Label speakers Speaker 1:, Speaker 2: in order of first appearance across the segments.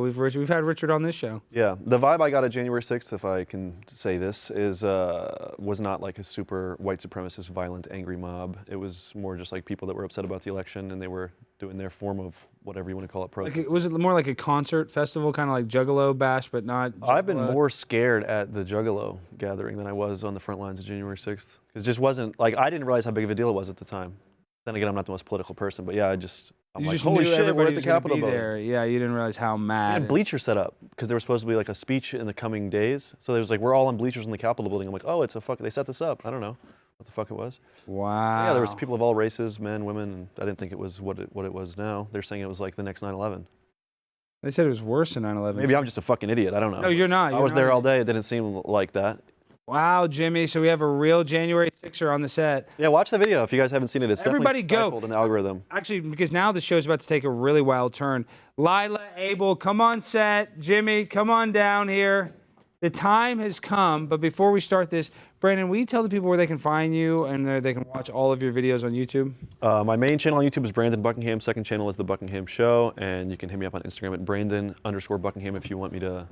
Speaker 1: We've Rich, we've had Richard on this show.
Speaker 2: Yeah, the vibe I got at January 6th, if I can say this, is uh, was not like a super white supremacist, violent, angry mob. It was more just like people that were upset about the election and they were doing their form of whatever you want to call it protest.
Speaker 1: Like, it- was it more like a concert festival, kind of like Juggalo Bash, but not?
Speaker 2: I've been
Speaker 1: Juggalo?
Speaker 2: more scared at the Juggalo gathering than I was on the front lines of January 6th. It just wasn't like I didn't realize how big of a deal it was at the time. Then again, I'm not the most political person, but yeah, I just I'm
Speaker 1: You
Speaker 2: like,
Speaker 1: just
Speaker 2: holy
Speaker 1: knew
Speaker 2: shit, we're
Speaker 1: everybody
Speaker 2: at the
Speaker 1: was gonna
Speaker 2: Capitol
Speaker 1: be
Speaker 2: voting."
Speaker 1: there. Yeah, you didn't realize how
Speaker 2: We
Speaker 1: mad.
Speaker 2: had bleachers set up because there was supposed to be like a speech in the coming days. So there was like we're all on bleachers in the Capitol building. I'm like, oh, it's a fuck. They set this up. I don't know what the fuck it was.
Speaker 1: Wow.
Speaker 2: Yeah, there was people of all races, men, women. And I didn't think it was what it, what it was now. They're saying it was like the next 9/11.
Speaker 1: They said it was worse than 9/11.
Speaker 2: Maybe I'm just a fucking idiot. I don't know.
Speaker 1: No, you're not.
Speaker 2: I
Speaker 1: You're
Speaker 2: was
Speaker 1: not
Speaker 2: there
Speaker 1: an
Speaker 2: all day. It didn't seem like that.
Speaker 1: Wow, Jimmy. So we have a real January 6er on the set.
Speaker 2: Yeah, watch the video if you guys haven't seen it. It's
Speaker 1: Everybody
Speaker 2: definitely
Speaker 1: go.
Speaker 2: stifled in the algorithm.
Speaker 1: Actually, because now the show's about to take a really wild turn. Lila, Abel, come on set. Jimmy, come on down here. The time has come, but before we start this, Brandon, will you tell the people where they can find you and where they can watch all of your videos on YouTube?
Speaker 2: Uh, my main channel on YouTube is Brandon Buckingham. Second channel is The Buckingham Show, and you can hit me up on Instagram at Brandon underscore Buckingham if you want me to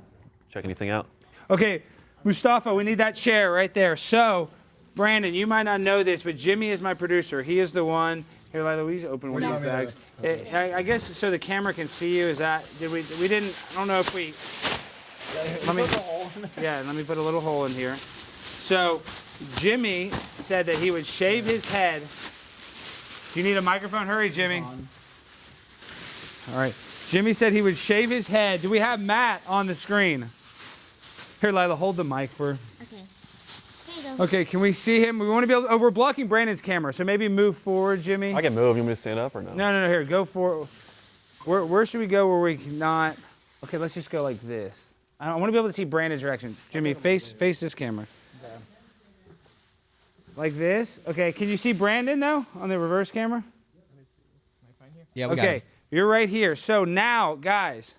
Speaker 2: check anything out.
Speaker 1: Okay, Mustafa, we need that chair right there. So, Brandon, you might not know this, but Jimmy is my producer. He is the one. Here, Lila, we open one of these bags. Eh, I, I guess so the camera can see you. Is that did we? We didn't. I don't know if we. Let me. Yeah, let me put a little hole in here. So, Jimmy said that he would shave his head. Do you need a microphone? Hurry, Jimmy. All right. Jimmy said he would shave his head. Do we have Matt on the screen? Here, Lila, hold the mic for.
Speaker 3: Okay. There you go.
Speaker 1: Okay, can we see him? We want to be able. Oh, we're blocking Brandon's camera, so maybe move forward, Jimmy.
Speaker 2: I can move. You want me to stand up or no?
Speaker 1: No, no, no. Here, go for. Where, where should we go where we cannot? Okay, let's just go like this. I, want to be able to see Brandon's reaction. Jimmy, face face this camera. Like this. Okay, can you see Brandon though on the reverse camera?
Speaker 4: Yeah, we got
Speaker 1: Okay,
Speaker 4: it.
Speaker 1: you're right here. So now, guys,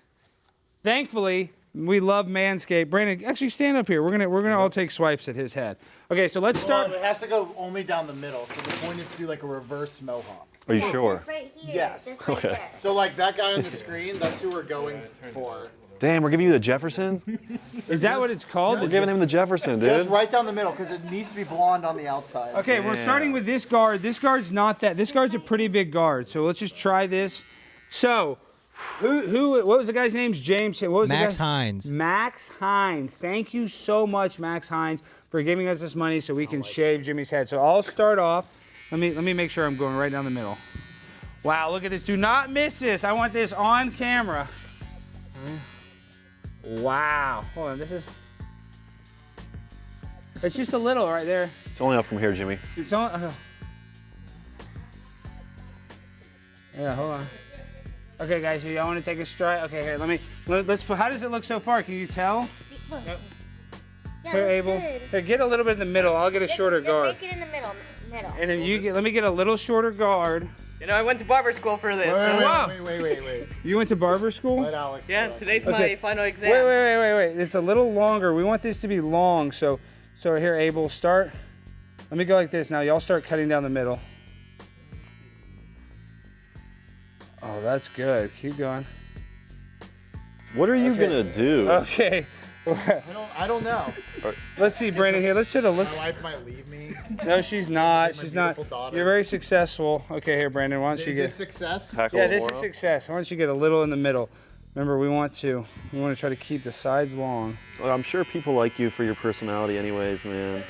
Speaker 1: thankfully we love Manscaped. Brandon, actually stand up here. We're gonna we're gonna all take swipes at his head. Okay, so let's start.
Speaker 5: Well, it has to go only down the middle. So the point is to do like a reverse mohawk.
Speaker 2: Are you sure?
Speaker 3: This right here.
Speaker 5: Yes.
Speaker 3: This right
Speaker 2: Okay.
Speaker 3: there.
Speaker 5: So like that guy on the screen, that's who we're going for.
Speaker 2: Damn, we're giving you the Jefferson.
Speaker 1: Is that what it's called?
Speaker 2: we're giving him the Jefferson, dude.
Speaker 5: Just right down the middle because it needs to be blonde on the outside.
Speaker 1: Okay, we're starting with this guard. This guard's not that. This guard's a pretty big guard. So let's just try this. So, who who what was the guy's name? James. What was
Speaker 4: Max
Speaker 1: the guy?
Speaker 4: Hines.
Speaker 1: Max Hines. Thank you so much, Max Hines, for giving us this money so we can shave Jimmy's head. So I'll start off. Let me let me make sure I'm going right down the middle. Wow, look at this. Do not miss this. I want this on camera. Wow. Hold on, this is. It's just a little right there.
Speaker 2: It's only up from here, Jimmy.
Speaker 1: It's on. Uh, yeah, hold on. Okay, guys, you all want to take a stride? Okay, here, let me. Let, let's. put- How does it look so far? Can you tell?
Speaker 3: Look.
Speaker 1: Here,
Speaker 3: Yeah, that's
Speaker 1: Abel.
Speaker 3: good.
Speaker 1: Here, get a little bit in the middle. I'll get a
Speaker 3: Just-
Speaker 1: shorter
Speaker 3: just
Speaker 1: guard.
Speaker 3: Make it in the middle. Middle.
Speaker 1: And then you get. Let me get a little shorter guard.
Speaker 6: You know, I went to barber school for this.
Speaker 5: Wait,
Speaker 6: so-
Speaker 5: wait,
Speaker 1: Wow.
Speaker 5: wait, wait, wait, wait, wait.
Speaker 1: You went to barber school?
Speaker 5: Let Alex. do
Speaker 6: Yeah,
Speaker 5: it.
Speaker 6: today's
Speaker 1: Okay.
Speaker 6: my final exam.
Speaker 1: Wait, wait, wait, wait, wait. It's a little longer. We want this to be long. So, so here, Abel, start. Let me go like this. Now, y'all start cutting down the middle. Oh, that's good. Keep going.
Speaker 2: What are you gonna do?
Speaker 1: Okay.
Speaker 5: I don't. I don't know.
Speaker 1: Let's see, Brandon. Here, let's do the let's.
Speaker 5: My wife might leave me.
Speaker 1: No, she's not. She's not.
Speaker 5: beautiful daughter.
Speaker 1: You're very successful. Okay, here, Brandon. Why don't
Speaker 5: Is
Speaker 1: you
Speaker 5: this
Speaker 1: get?
Speaker 5: success?
Speaker 2: Tackle
Speaker 1: Yeah, this is
Speaker 2: Laura?
Speaker 1: success. Why don't you get a little in the middle? Remember, we want to. We want to try to keep the sides long.
Speaker 2: Well, I'm sure people like you for your personality, anyways, man.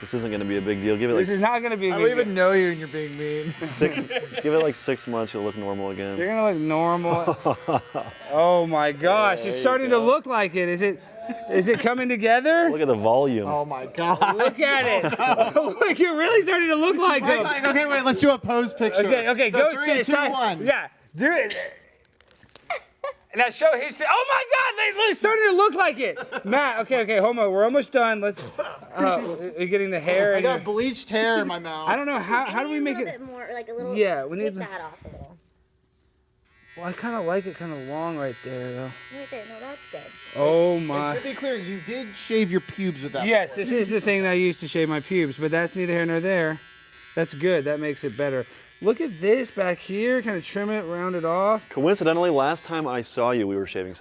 Speaker 2: This isn't gonna be a big deal. Give it like
Speaker 1: This is not gonna be. a
Speaker 5: I
Speaker 1: big
Speaker 5: don't even know you, and you're being mean.
Speaker 2: six. give it like six months. You'll look normal
Speaker 1: deal.
Speaker 2: again.
Speaker 1: You're gonna look normal. oh my gosh, it's starting to look like it. Is it? Is it coming together?
Speaker 2: Look at the volume.
Speaker 5: Oh my god.
Speaker 1: Look at it. look, you're really starting to look like
Speaker 5: Like,
Speaker 1: it.
Speaker 5: like, okay, wait. Let's do a pose picture.
Speaker 1: Okay, okay,
Speaker 5: so
Speaker 1: go
Speaker 5: three,
Speaker 1: sit
Speaker 5: two,
Speaker 1: aside.
Speaker 5: one.
Speaker 1: Yeah, do it. Now show his face. Oh my God, they- it's starting to look like it. Matt, okay, okay, homo, we're almost done. Let's. Uh, you're getting the hair.
Speaker 5: I
Speaker 1: and
Speaker 5: got
Speaker 1: your-
Speaker 5: bleached hair in my mouth.
Speaker 1: I don't know how. How do we make
Speaker 3: Maybe a
Speaker 1: it?
Speaker 3: little bit more, like a little.
Speaker 1: Yeah, we need
Speaker 3: Take
Speaker 1: the-
Speaker 3: that off a little.
Speaker 1: Well, I kind of like it, kind of long right there though.
Speaker 3: Right there. No, that's good.
Speaker 1: Oh
Speaker 5: And
Speaker 1: my.
Speaker 5: to be clear, you did shave your pubes with that.
Speaker 1: Yes, this is the thing that I used to shave my pubes, but that's neither here nor there. That's good. That makes it better. Look at this back here, kind of trim it, round it off.
Speaker 2: Coincidentally, last time I saw you, we were shaving